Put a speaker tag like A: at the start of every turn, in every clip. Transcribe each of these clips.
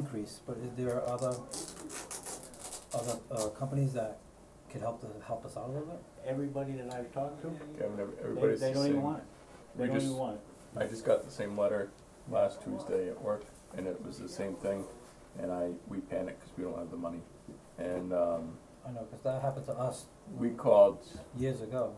A: increase, but is there other, other, uh, companies that could help to, help us out a little bit?
B: Everybody that I've talked to,
C: Yeah, when every-
B: they,
C: everybody's
B: they
C: the
B: don't even
C: same.
B: want it. They
C: We
B: don't
C: just-
B: even want it.
C: I just got the same letter last Tuesday at work, and it was the same thing, and I, we panicked because we don't have the money. And, um,
A: I know, cause that happened to us
C: we called,
A: years ago,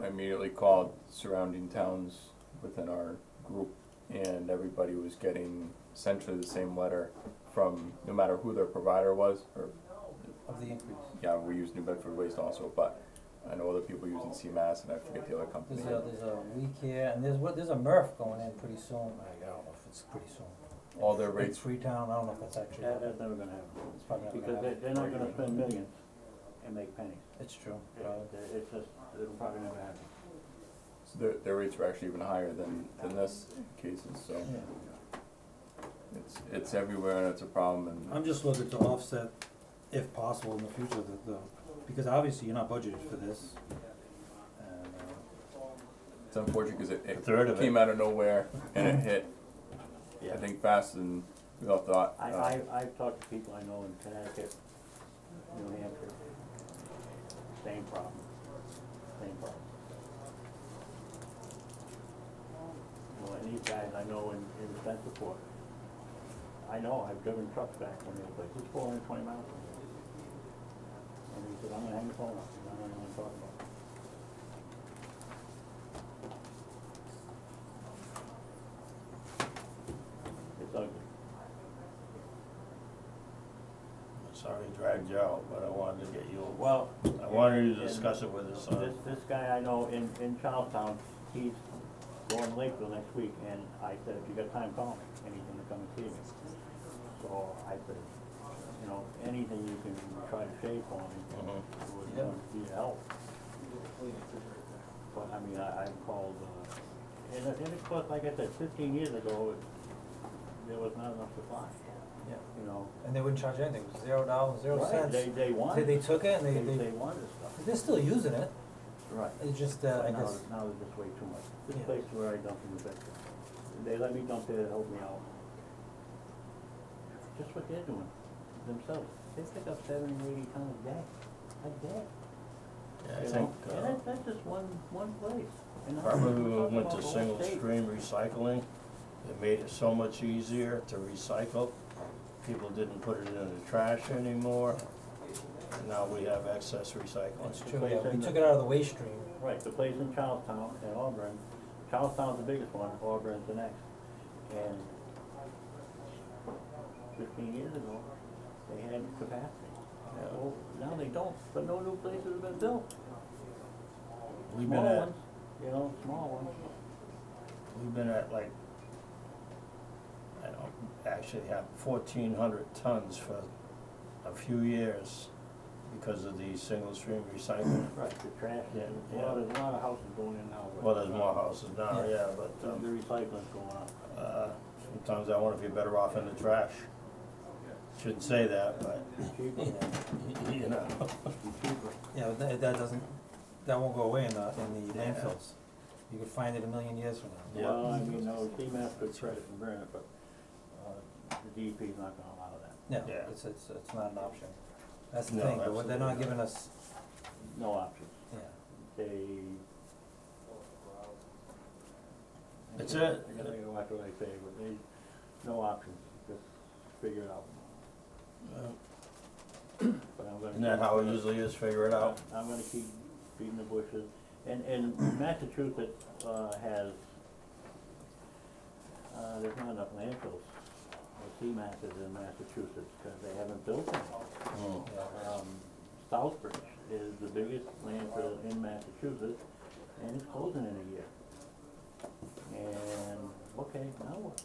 C: I immediately called surrounding towns within our group, and everybody was getting essentially the same letter from, no matter who their provider was, or,
A: of the increase.
C: yeah, we use New Bedford Waste also, but I know other people using CMAS, and I forget the other company.
A: There's a, there's a We Care, and there's, what, there's a MRF going in pretty soon, I don't know if it's pretty soon.
C: All their
A: It's
C: rates,
A: Freetown, I don't know if that's actually,
B: That,
A: happening.
B: that's never gonna happen,
A: it's probably not gonna
B: because they,
A: happen,
B: they're not gonna spend millions and make pennies.
A: it's true,
B: It-
A: probably.
B: it- It's just, it'll probably never happen.
C: their, their rates were actually even higher than, than this cases, so.
A: Yeah.
C: It's, it's everywhere and it's a problem and,
A: I'm just looking to offset, if possible, in the future, the, the, because obviously you're not budgeted for this. And, uh,
C: it's unfortunate because it,
D: A third
C: it
D: of
C: came
D: it.
C: out of nowhere and it hit, I
B: Yeah.
C: think faster than we all thought.
B: I,
C: Uh,
B: I, I've talked to people I know in Connecticut, New Hampshire, same problem, same problem. Well, and these guys I know in, in Centipore, I know, I've driven trucks back when they were like, it's four hundred and twenty miles. from here." And he said, I'm gonna hang the phone up, and I don't know what I'm talking about. It's ugly.
D: Sorry to drag you out, but I wanted to get you,
B: Well.
D: I wanted to discuss it with us, uh,
B: This, this guy I know in, in Charlestown, he's going to Lakeville next week, and I said, if you got time, call me, and he's gonna come and see me. So I said, you know, anything you can try to shave for
D: Uh-huh.
B: me would, would be help. But I mean, I, I called, uh, and, and of course, like I said, fifteen years ago, it- there was not enough supply,
A: yeah.
B: you know.
A: And they wouldn't charge anything, it was zero dollars, zero
B: Right,
A: cents.
B: They, they
A: They,
B: wanted,
A: they
B: they,
A: took it and they,
B: they
A: they,
B: wanted stuff.
A: they're still using it,
B: Right.
A: it's just, uh, I
B: But now,
A: guess,
B: it's- now it's just way too much. This
A: Yeah.
B: place where I dump in the back, they let me dump there to help me out. Just what they're doing themselves. They pick up seventy, eighty tons a day, a day.
D: yeah, I
B: you
D: think,
B: know? And
D: uh,
B: that, that's just one, one place. And how
D: probably
B: much we're
D: we
B: talking
D: went
B: about
D: to
B: the whole
D: single
B: state.
D: stream recycling. It made it so much easier to recycle. People didn't put it in the trash anymore. And Now we have excess
A: it's
D: recycling.
A: true, yeah, we took it out of the waste stream,
B: Right, the place in Charlestown and Auburn, Charlestown's the biggest one, Auburn's the next. And fifteen years ago, they had capacity. Well, now they don't, but no new places have been built.
D: We've been
B: Small
D: at,
B: ones, you know, small ones.
D: we've been at like, I don't, actually have fourteen hundred tons for a few years because of the single stream recycling.
B: Right, the trash,
D: Yeah,
B: well,
D: yeah.
B: there's a lot of houses going in now. but-
D: Well, there's more houses now,
A: Yeah.
D: yeah, but,
B: The
D: um,
B: the recycling's going up.
D: Uh, Sometimes I wanna be better off in the trash. Shouldn't say that, but,
B: Cheaper,
D: you know,
B: cheaper.
A: yeah, but that, that doesn't, that won't go away in the, in the
D: Yeah.
A: landfills. You could find it a million years from now.
D: Yeah.
B: Well, I mean, no, CMAS could credit and burn it, but, uh, the DEP's not gonna allow that.
A: No,
D: Yeah.
A: it's, it's, it's not an option, that's the
D: No,
A: thing, but they're not
D: absolutely
A: giving us,
B: No options.
A: yeah,
B: They.
D: That's it.
B: I gotta watch what I say, but they, no options, just figure it out. But I'm gonna.
D: isn't that
B: keep-
D: how it usually is, figure it out?
B: I'm gonna keep beating the bushes, and, and Massachusetts, uh, has, uh, there's not enough landfills. The CMAS is in Massachusetts, cause they haven't built them.
D: Mm.
A: yeah.
B: Um, Southbridge is the biggest landfill in Massachusetts, and it's closing in a year. And, okay, now what?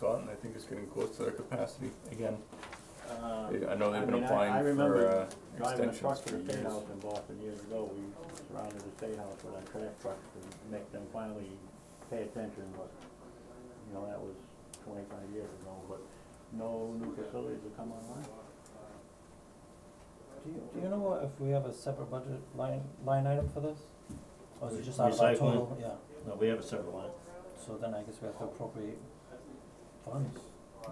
C: Done, and I think it's getting close to their capacity again.
B: Uh,
C: I know
B: I
C: they've
B: mean,
C: been
B: I- I
C: applying
B: remember
C: for, uh,
B: driving a
C: extensions
B: truck
C: for
B: to the
C: years.
B: state house in Boston years ago, we surrounded the state house with our trash trucks to make them finally pay attention, but, you know, that was twenty-five years ago, but no new facilities have come online.
A: Do you, do you know what, if we have a separate budget line, line item for this? Or is it just out of our
D: Recycling.
A: total, yeah,
D: No, we have a separate line.
A: so then I guess we have to appropriate funds,